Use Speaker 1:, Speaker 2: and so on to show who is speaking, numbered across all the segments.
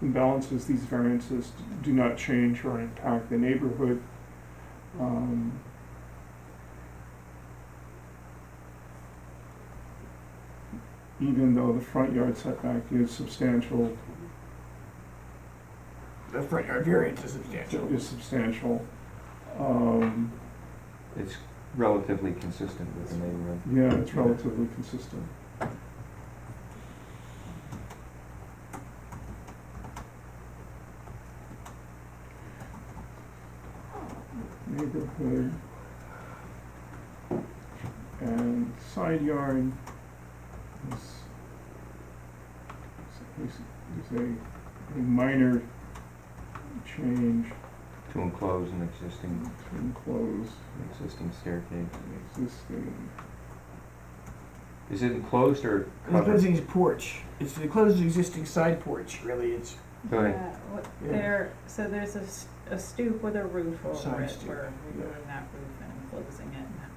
Speaker 1: and balances, these variances do not change or impact the neighborhood. Um, Even though the front yard setback is substantial,
Speaker 2: The front yard variance is substantial.
Speaker 1: is substantial, um,
Speaker 3: It's relatively consistent with the neighborhood.
Speaker 1: yeah, it's relatively consistent. Neighborhood and side yard is, is, is a, a minor change
Speaker 3: To enclose an existing,
Speaker 1: to enclose
Speaker 3: an existing staircase.
Speaker 1: an existing
Speaker 3: Is it enclosed or
Speaker 2: It includes
Speaker 3: covered?
Speaker 2: the porch. It's it includes the existing side porch, really. It's
Speaker 3: Go ahead.
Speaker 4: Yeah, what-
Speaker 2: Yeah.
Speaker 4: There, so there's a s- a stoop with a roof
Speaker 2: Side
Speaker 4: over it,
Speaker 2: stoop,
Speaker 4: we're
Speaker 2: yeah.
Speaker 4: removing that roof and closing it and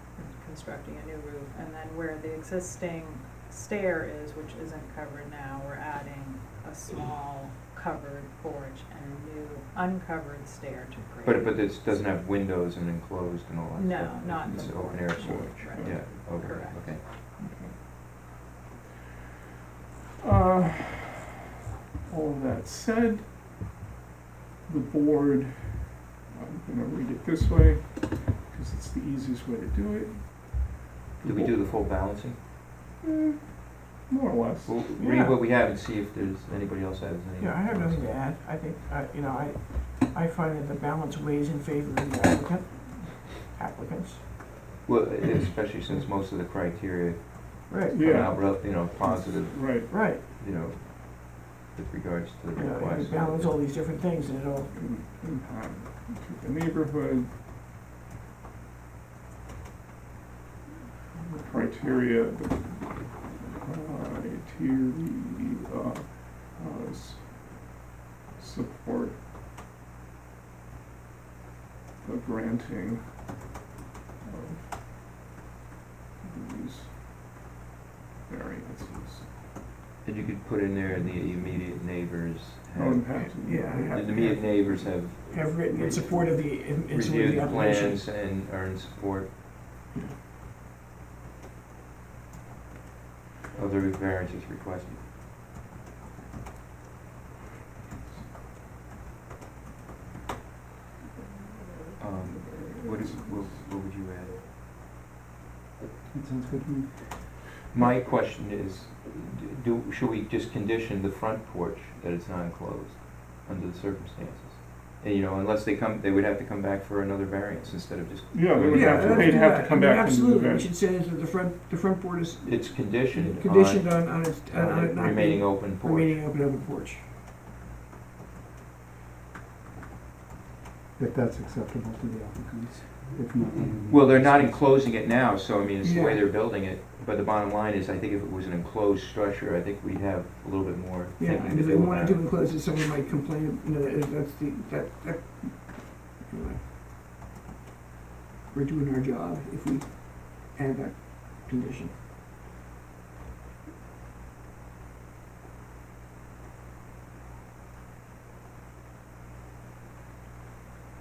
Speaker 4: constructing a new roof. And then where the existing stair is, which isn't covered now, we're adding a small covered porch and a new uncovered stair to create.
Speaker 3: But, but this doesn't have windows and enclosed and all that
Speaker 4: No,
Speaker 3: stuff?
Speaker 4: not
Speaker 3: It's
Speaker 4: the
Speaker 3: open air
Speaker 4: porch.
Speaker 3: porch,
Speaker 4: Right.
Speaker 3: yeah, okay,
Speaker 4: Correct.
Speaker 3: okay.
Speaker 1: Uh, All of that said, the board, I'm gonna read it this way, because it's the easiest way to do it.
Speaker 3: Did we do the full balancing?
Speaker 1: Eh, More or less.
Speaker 3: We'll
Speaker 2: Yeah.
Speaker 3: read what we have and see if there's, anybody else has any.
Speaker 2: yeah. I have nothing to add. I think uh, you know I I find that the balance weighs in favor of the applicant applicants.
Speaker 3: Well, especially since most of the criteria
Speaker 2: Right.
Speaker 3: come
Speaker 1: Yeah.
Speaker 3: out, rel- you know, positive,
Speaker 1: Right,
Speaker 2: Right.
Speaker 3: you know, with regards to the
Speaker 2: You know,
Speaker 3: request.
Speaker 2: you balance all these different things, and it all
Speaker 1: im- impact to the neighborhood. The Criteria, the criteria, uh, s- support the granting of these variances.
Speaker 3: And you could put in there the immediate neighbors
Speaker 2: Oh,
Speaker 1: No
Speaker 3: have,
Speaker 1: impact. to the
Speaker 2: Yeah, I
Speaker 3: the
Speaker 1: neighborhood.
Speaker 3: immediate neighbors have
Speaker 2: have written in support of the in, in support of
Speaker 3: reviewed
Speaker 2: the
Speaker 3: the
Speaker 2: application.
Speaker 3: plans and are in support of the variances requested. Um, what is, what, what would you add?
Speaker 1: That sounds good to me.
Speaker 3: My question is, do, should we just condition the front porch that it's not enclosed under the circumstances? And, you know, unless they come, they would have to come back for another variance instead of just.
Speaker 1: Yeah, they would
Speaker 2: Yeah,
Speaker 1: have to,
Speaker 2: let's
Speaker 1: they'd
Speaker 2: do
Speaker 1: have
Speaker 2: that.
Speaker 1: to come
Speaker 2: I mean,
Speaker 1: back into the
Speaker 2: Absolutely. We
Speaker 1: variance.
Speaker 2: should say that the front the front board is
Speaker 3: It's conditioned on.
Speaker 2: conditioned on on, its, on,
Speaker 3: on
Speaker 2: on
Speaker 3: it
Speaker 2: it not
Speaker 3: remaining
Speaker 2: being,
Speaker 3: open porch.
Speaker 2: remaining open open porch.
Speaker 5: if that's acceptable to the applicants. If not, then we-
Speaker 3: Well, they're not enclosing it now, so I mean, it's the way
Speaker 2: Yeah.
Speaker 3: they're building it. But the bottom line is, I think if it was an enclosed structure, I think we'd have a little bit more
Speaker 2: Yeah,
Speaker 3: thinking
Speaker 2: and
Speaker 3: to
Speaker 2: if they
Speaker 3: do
Speaker 2: wanted
Speaker 3: about
Speaker 2: to
Speaker 3: it.
Speaker 2: enclose it, someone might complain, you know, that- that's the, that, that. anyway. We're doing our job if we add that condition.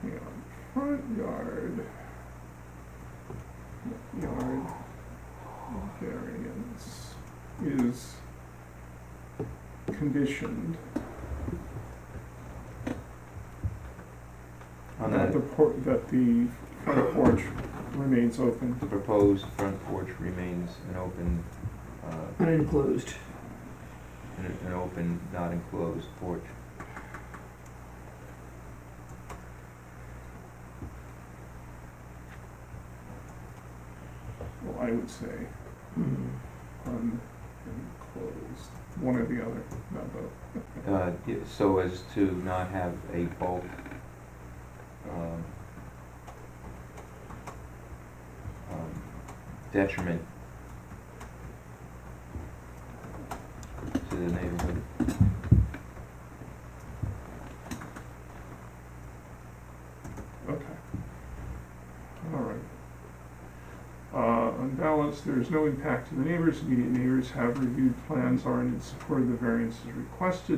Speaker 1: Yeah, front yard. Yard variance is conditioned
Speaker 3: On
Speaker 1: that the
Speaker 3: that,
Speaker 1: por- that the front porch remains open.
Speaker 3: the proposed front porch remains an open, uh,
Speaker 2: Unenclosed.
Speaker 3: an, an open, not enclosed porch.
Speaker 1: Well, I would say unenclosed, one or the other, not both.
Speaker 3: uh, yeah, so as to not have a bulk, um, um, detriment to the neighborhood.
Speaker 1: Okay. All right. Uh, on balance, there is no impact to the neighbors. Immediate neighbors have reviewed plans, are in support of the variances requested.